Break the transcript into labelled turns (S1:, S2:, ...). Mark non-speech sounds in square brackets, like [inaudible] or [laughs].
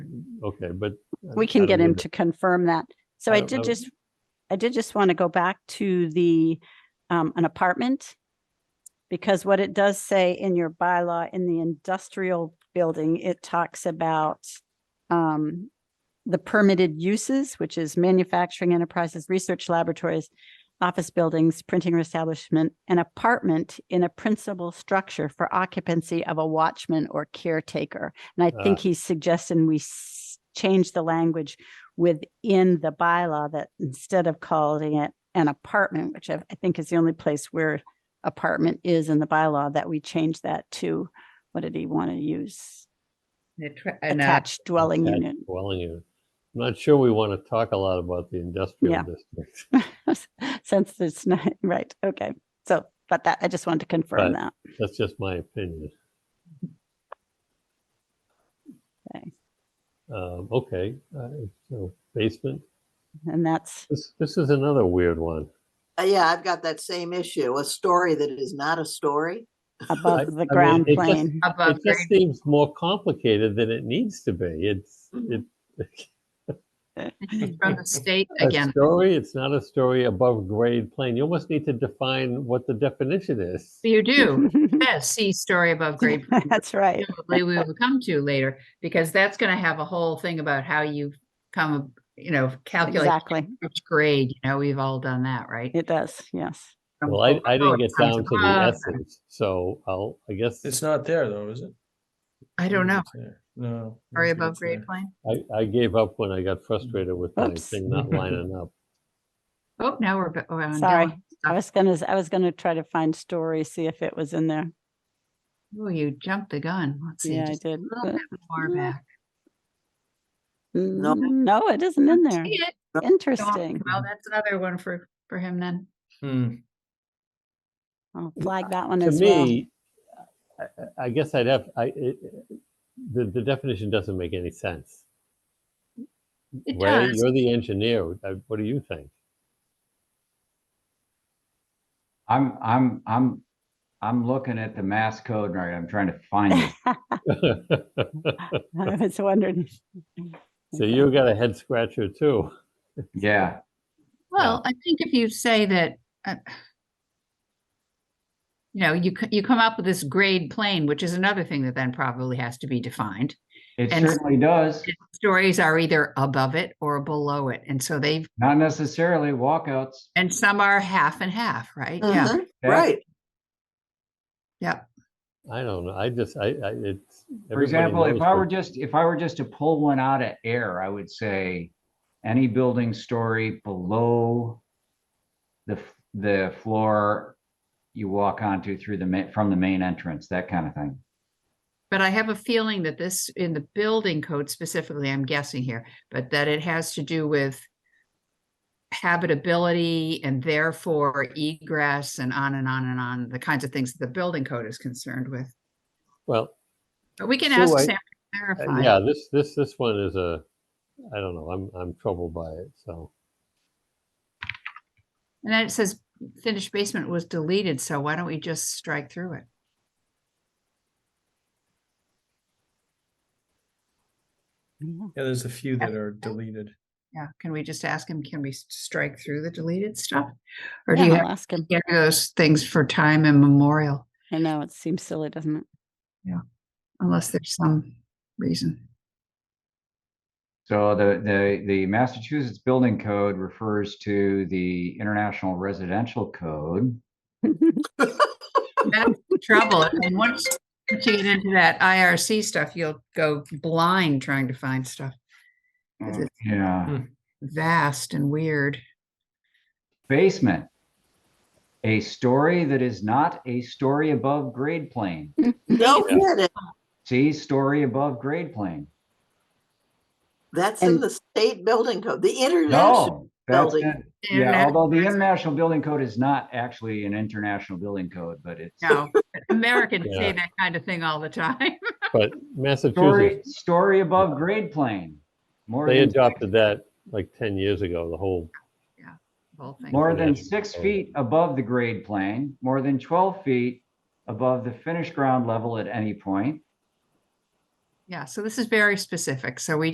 S1: okay, but. I-
S2: We
S1: I
S2: can
S1: don't
S2: get him
S1: need
S2: to confirm that. So
S1: I
S2: I
S1: don't
S2: did
S1: know.
S2: just, I did just want to go back to the, um, an apartment. Because what it does say in your bylaw in the industrial building, it talks about, um, the permitted uses, which is manufacturing enterprises, research laboratories, office buildings, printing establishment, an apartment in a principal structure for occupancy of a watchman or caretaker. And I think he's suggesting we s- change the language within the bylaw that instead of calling it an apartment, which I I think is the only place where apartment is in the bylaw, that we change that to, what did he want to use? Attached dwelling
S1: attached
S2: unit.
S1: Dwelling unit. I'm not sure we want to talk a lot about the industrial
S2: Yeah.
S1: district.
S2: Since it's [laughs] not, right, okay. So, but that, I just wanted to
S1: Right.
S2: confirm that.
S1: That's just my opinion.
S2: Okay.
S1: Um, okay, uh, so basement.
S2: And that's,
S1: This, this is another weird one.
S3: Uh, Yeah, I've got that same issue, a story that is not a story.
S1: [laughs] I
S2: above the
S1: mean,
S2: ground
S1: it just-
S2: plane.
S4: above
S1: It
S4: grade.
S1: just seems more complicated than it needs to be. It's,
S4: Mm-hmm.
S1: it.
S4: It's From the state
S1: A
S4: again,
S1: story, it's not a story above grade plane. You almost need to define what the definition is.
S4: you do,
S2: [laughs]
S4: yes, see story above grade.
S2: That's right.
S4: Probably we will come to later, because that's gonna have a whole thing about how you come, you know, calculate
S2: Exactly.
S4: each grade, you know, we've all done that, right?
S2: It does. Yes.
S4: From
S1: Well, I, I
S4: below
S1: didn't get
S4: it comes
S1: down to the
S4: above.
S1: essence, so I'll, I guess,
S5: It's not there though, is it?
S4: I don't know,
S5: It's there. No. I
S4: story
S5: don't think
S4: above
S5: it's
S4: grade
S5: there.
S4: plane.
S1: I, I gave up when I got frustrated with my
S2: Oops.
S1: thing not lining up.
S4: Oh, now we're. ba- we're on
S2: Sorry.
S4: Dylan.
S2: I was gonna, I was gonna try to find story, see if it was in there.
S4: Oh, you jumped the gun. Let's see.
S2: Yeah, I
S4: just
S2: did.
S4: a little
S2: but-
S4: bit Far
S2: Mm,
S4: back.
S3: No.
S2: mm, No, it isn't in there.
S4: See it?
S2: Interesting.
S4: Well, that's another one for, for him then.
S5: Hmm.
S2: I'll flag that one
S1: To
S2: as well.
S1: me, I, I- I guess I'd have, I, it, the, the definition doesn't make any sense.
S4: It
S1: Ray,
S4: does.
S1: you're the engineer. Uh, What do you think? [laughs]
S6: I'm, I'm, I'm, I'm looking at the mass code right. I'm trying to find it.
S4: [laughs]
S2: [laughs] I was wondering.
S1: So you got a head scratcher too.
S6: Yeah.
S4: Well, I think if you say that, uh, you know, you, c- you come up with this grade plane, which is another thing that then probably has to be defined.
S6: It
S4: And-
S6: certainly does.
S4: Stories are either above it or below it. And so they've,
S6: Not necessarily walkouts.
S4: and some are half and half, right? Yeah.
S3: Mhm,
S6: Yeah.
S3: Right,
S4: Yep.
S1: I don't know. I just, I, I, it's.
S6: For
S1: everybody
S6: example, if
S1: knows
S6: I
S1: what-
S6: were just, if I were just to pull one out of air, I would say any building story below the, f- the floor you walk onto through the, ma- from the main entrance, that kind of thing.
S4: But I have a feeling that this, in the building code specifically, I'm guessing here, but that it has to do with habitability and therefore egress and on and on and on, the kinds of things that the building code is concerned with.
S1: Well,
S4: But we can
S1: So
S4: ask
S1: I-
S4: Sam to
S1: Uh,
S4: clarify.
S1: Yeah, this, this, this one is a, I don't know, I'm, I'm troubled by it, so.
S4: And then it says finished basement was deleted, so why don't we just strike through it?
S2: Yeah.
S5: Yeah, there's a few that are deleted.
S4: Yeah, can we just ask him, can we s- strike through the deleted stuff? Or do
S2: Yeah,
S4: you have
S2: I'll ask him.
S4: to get those things for time immemorial
S2: I know, it seems silly, doesn't it?
S4: unless there's some reason?
S6: So the, the, the Massachusetts Building Code refers to the International Residential Code.
S2: [laughs]
S4: That's the trouble. And once you get into that IRC stuff, you'll go blind trying to find stuff Is it-
S6: Mm, Yeah.
S4: vast and weird.
S6: Basement. A story that is not a story above grade plane.
S3: no kidding,
S6: See, story above grade plane.
S3: that's in
S2: And-
S3: the state building code, the international,
S6: No, that's
S3: building.
S6: it. Yeah, although the international building code is not actually an international building code, but it's
S4: No,
S1: [laughs]
S4: Americans
S1: Yeah.
S4: say that kind of thing all the time. [laughs]
S1: But
S6: story,
S1: Massachusetts,
S6: story above grade plane. More
S1: they
S6: than,
S1: adopted that like ten years ago, the whole,
S4: Whole thing.
S6: more than
S1: international
S6: six
S1: code.
S6: feet above the grade plane, more than twelve feet above the finished ground level at any point.
S4: Yeah, so this is very specific. So we